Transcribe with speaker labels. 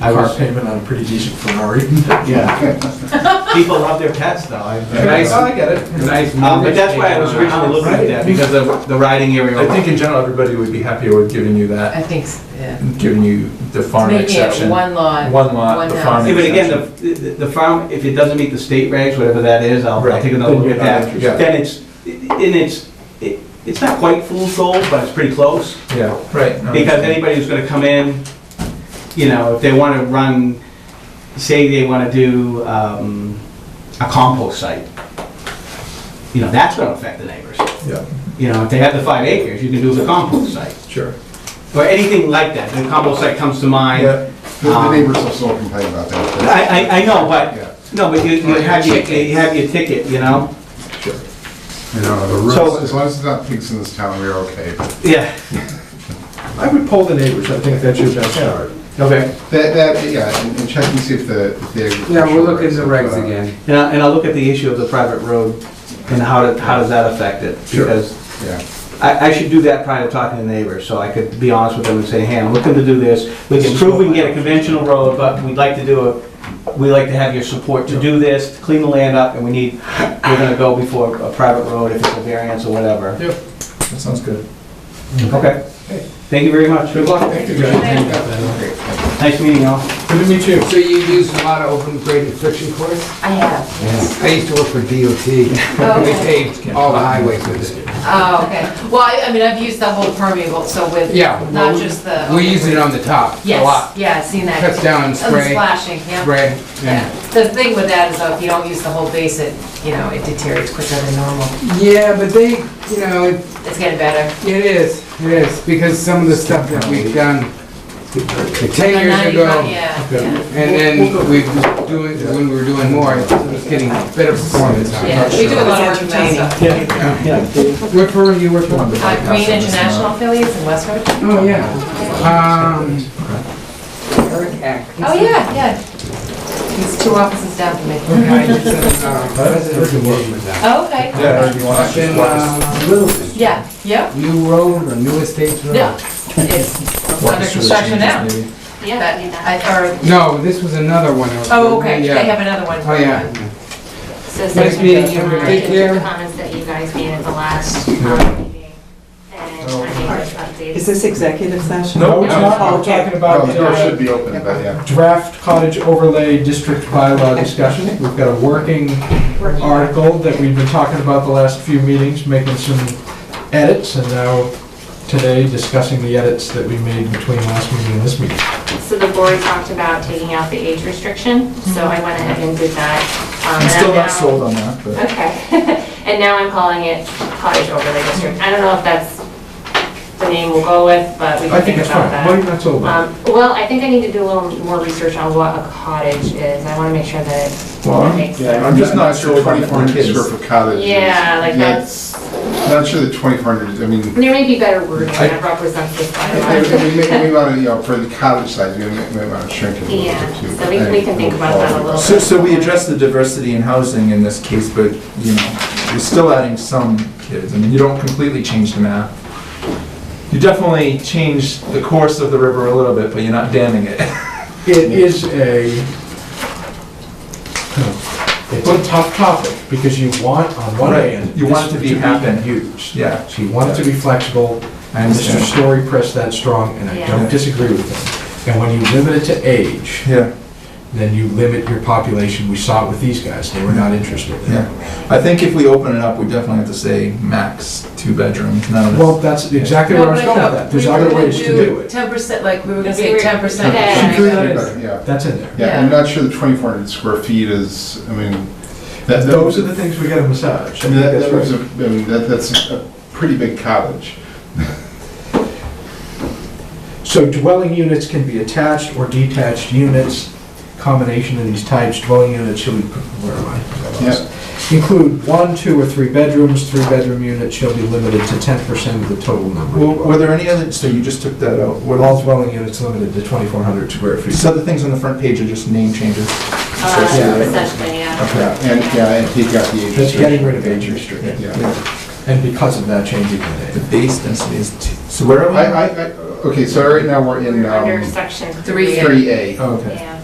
Speaker 1: I
Speaker 2: car
Speaker 1: was,
Speaker 2: payment on a pretty decent Ferrari.
Speaker 1: yeah.
Speaker 3: People love their pets though. I,
Speaker 1: Nice.
Speaker 3: I get it.
Speaker 1: Nice
Speaker 3: Um, but that's why I was
Speaker 1: movement.
Speaker 3: originally looking at that, because of the riding area.
Speaker 2: I think in general, everybody would be happier with giving you that,
Speaker 4: I think, s- yeah.
Speaker 2: giving you the farm
Speaker 4: Making
Speaker 2: exception.
Speaker 4: it one lot.
Speaker 2: One lot, the
Speaker 4: house.
Speaker 2: farm
Speaker 3: Yeah, but again, the, the- the farm, if it doesn't meet the state regs, whatever that is, I'll, I'll
Speaker 2: Right.
Speaker 3: take another
Speaker 2: Then
Speaker 3: look at
Speaker 2: you're not
Speaker 3: that.
Speaker 2: interested.
Speaker 3: Then it's, and it's, it- it's not quite full sold, but it's pretty close.
Speaker 2: Yeah, right. no,
Speaker 3: Because
Speaker 2: I-
Speaker 3: anybody who's gonna come in, you know, if they wanna run, say they wanna do, um, a compost site, you know, that's gonna affect the neighbors.
Speaker 2: Yeah,
Speaker 3: You know, if they have the five acres, you can do the compost site,
Speaker 2: sure.
Speaker 3: or anything like that, the compost site comes to mind.
Speaker 2: Yeah,
Speaker 1: The- The neighbors will still complain about that.
Speaker 3: I, I, I know,
Speaker 1: Yeah.
Speaker 3: but, no, but you, you have your, you have your ticket, you know?
Speaker 2: sure.
Speaker 1: You know, the
Speaker 3: So-
Speaker 1: rules, as long as it's not pigs in this town, we're okay.
Speaker 3: Yeah.
Speaker 2: I would poll the neighbors, I think that's your best card.
Speaker 3: Okay.
Speaker 1: That, that, yeah, and and check and see if the, if the.
Speaker 5: Yeah, we'll look
Speaker 1: agricultural
Speaker 5: into
Speaker 1: rights,
Speaker 5: regs
Speaker 1: uh,
Speaker 5: again.
Speaker 3: And I, and I'll look at the issue of the private road and how, to- how does that affect it?
Speaker 2: Sure.
Speaker 3: Because
Speaker 1: Yeah,
Speaker 3: I, I should do that prior to talking to neighbors, so I could be honest with them and say, hey, I'm looking to do this. We can prove we can get a conventional road, but we'd like to do a, we'd like to have your support to do this, to clean the land up, and we need, we're gonna go before a private road if it's a variance or whatever.
Speaker 2: Yep. That sounds good.
Speaker 3: Okay. Thank you very much. Good luck.
Speaker 1: thank you, guys. Okay.
Speaker 3: Nice meeting y'all.
Speaker 2: Good to meet you.
Speaker 5: So you use a lot of open grade infection courts?
Speaker 4: I have.
Speaker 5: I used to work for DOT. We paved all the highways with it.
Speaker 4: Oh, okay. Well, I, I mean, I've used the whole permeable, so with,
Speaker 5: Yeah, well,
Speaker 4: not
Speaker 5: we-
Speaker 4: just the.
Speaker 5: We use it on the top a lot.
Speaker 4: Yes, yeah, I've seen that.
Speaker 5: Cuts down on
Speaker 4: And
Speaker 5: spray,
Speaker 4: Splashing, yeah.
Speaker 5: spray.
Speaker 4: Yeah. The thing with that is though, if you don't use the whole base, it, you know, it deteriorates quicker than normal.
Speaker 5: Yeah, but they, you know, it-
Speaker 4: It's getting better.
Speaker 5: it is, it is, because some of the stuff that we've done
Speaker 4: But
Speaker 5: ten
Speaker 4: now
Speaker 5: years
Speaker 4: you
Speaker 5: ago,
Speaker 4: got- Yeah, yeah.
Speaker 5: and then we were doing, when we were doing more, it was getting better performance. on it.
Speaker 4: Yeah, we do a lot of work with that stuff.
Speaker 5: Where for you work for?
Speaker 4: Uh, Green International affiliates in Westford.
Speaker 5: Oh, yeah. Um, Eric Hack.
Speaker 4: Oh, yeah, yeah. He's two offices down from me.
Speaker 5: I did some, uh, president's meeting with them.
Speaker 4: Oh, Okay.
Speaker 2: Yeah, you want
Speaker 5: Up
Speaker 2: to
Speaker 5: in, uh, Littleton.
Speaker 4: Yeah, yep,
Speaker 5: New Road or New Estates Road?
Speaker 4: yeah. It's under construction now. But I, or,
Speaker 5: No, this was another one.
Speaker 4: oh, okay,
Speaker 5: Yeah.
Speaker 4: they have another one.
Speaker 5: Oh, yeah.
Speaker 6: So
Speaker 5: Nice meeting you.
Speaker 6: Sarah,
Speaker 5: Take care.
Speaker 6: the comments that you guys made at the last um, meeting, and I think
Speaker 7: Is
Speaker 6: it's updated.
Speaker 7: this executive session?
Speaker 2: No, it's
Speaker 5: No.
Speaker 2: not, I'm talking about uh,
Speaker 1: No, the door should be open, but yeah.
Speaker 2: draft cottage overlay district bylaw discussion. We've got a working article that we've been talking about the last few meetings, making some edits, and now today discussing the edits that we made between last meeting and this meeting.
Speaker 6: So the board talked about taking out the age restriction, so I went ahead and did that. Um,
Speaker 2: I'm
Speaker 6: and
Speaker 2: still
Speaker 6: I'm now-
Speaker 2: not sold on that, but
Speaker 6: Okay, and now I'm calling it cottage overlay district. I don't know if that's uh, the name we'll go with, but we
Speaker 2: I
Speaker 6: can
Speaker 2: think
Speaker 6: think
Speaker 2: it's
Speaker 6: about
Speaker 2: fine.
Speaker 6: that.
Speaker 2: Why are you not sold on it?
Speaker 6: Um, Well, I think I need to do a little more research on what a cottage is. I want to make sure that
Speaker 2: Well,
Speaker 6: it makes
Speaker 2: yeah,
Speaker 6: sense.
Speaker 1: I'm just not sure
Speaker 2: about
Speaker 1: twenty-four hundred
Speaker 2: kids.
Speaker 1: square foot cottage. is-
Speaker 6: Yeah, like that's.
Speaker 1: Not sure the twenty-four hundred, I mean,
Speaker 6: There may be better wording
Speaker 2: I-
Speaker 6: that represents this
Speaker 1: if
Speaker 6: bylaw.
Speaker 1: we may, we want to, you know, for the cottage size, we may, we want to shrink it a little
Speaker 6: Yeah,
Speaker 1: bit too.
Speaker 6: so we can- we can think about that a little
Speaker 8: So, so we address the diversity in housing in this case, but, you know, you're still adding some kids. I mean, you don't completely change the map. You definitely change the course of the river a little bit, but you're not damming it.
Speaker 2: it is a, it's a tough topic, because you want, on one hand.
Speaker 8: You want it to
Speaker 2: this
Speaker 8: be happen.
Speaker 2: Huge.
Speaker 8: Yeah.
Speaker 2: So you want it to be flexible,
Speaker 8: I
Speaker 2: and Mr.
Speaker 8: understand.
Speaker 2: Story pressed that strong, and I
Speaker 6: Yeah.
Speaker 2: don't disagree with him. And when you limit it to age,
Speaker 8: Yeah,
Speaker 2: then you limit your population. We saw it with these guys, they were not interested in
Speaker 8: yeah.
Speaker 2: it.
Speaker 8: I think if we open it up, we definitely have to say max two bedrooms, none of
Speaker 2: Well,
Speaker 8: this.
Speaker 2: that's exactly where I was going with that. There's other ways to do it.
Speaker 4: Ten percent, like, we were gonna say
Speaker 6: We were-
Speaker 4: ten percent.
Speaker 6: Yeah.
Speaker 1: We could, but, Yeah,
Speaker 2: That's in there.
Speaker 1: yeah, I'm
Speaker 4: Yeah.
Speaker 1: not sure the twenty-four hundred square feet is, I mean, that, that
Speaker 2: Those
Speaker 1: was,
Speaker 2: are
Speaker 1: I
Speaker 2: the things we gotta massage. I
Speaker 1: mean,
Speaker 2: think
Speaker 1: that,
Speaker 2: that's
Speaker 1: that was, a-
Speaker 2: right.
Speaker 1: I mean, that, that's a pretty big cottage.
Speaker 2: So dwelling units can be attached or detached units. Combination of these types, dwelling units shall be, where am I?
Speaker 1: Yeah.
Speaker 2: Include one, two, or three bedrooms. Three-bedroom units shall be limited to ten percent of the total number. of
Speaker 8: Well, Were there any other, so you just took that out. What
Speaker 2: Well, all
Speaker 8: else?
Speaker 2: dwelling units limited to 2,400 square feet.
Speaker 8: So the things on the front page are just name changes.
Speaker 6: Uh, Essentially, yeah.
Speaker 1: Yeah, and, yeah, and he got the age.
Speaker 2: That's getting
Speaker 1: restriction.
Speaker 2: rid of age restriction.
Speaker 1: Yeah.
Speaker 2: And because of that, changing the name.
Speaker 8: The base density is, two- so where are we?
Speaker 1: I, I, I-
Speaker 4: okay, so right now we're in,
Speaker 6: We're under
Speaker 4: um,
Speaker 6: section
Speaker 1: Three. um,
Speaker 6: three.
Speaker 4: three A.
Speaker 2: Okay.
Speaker 6: Yeah.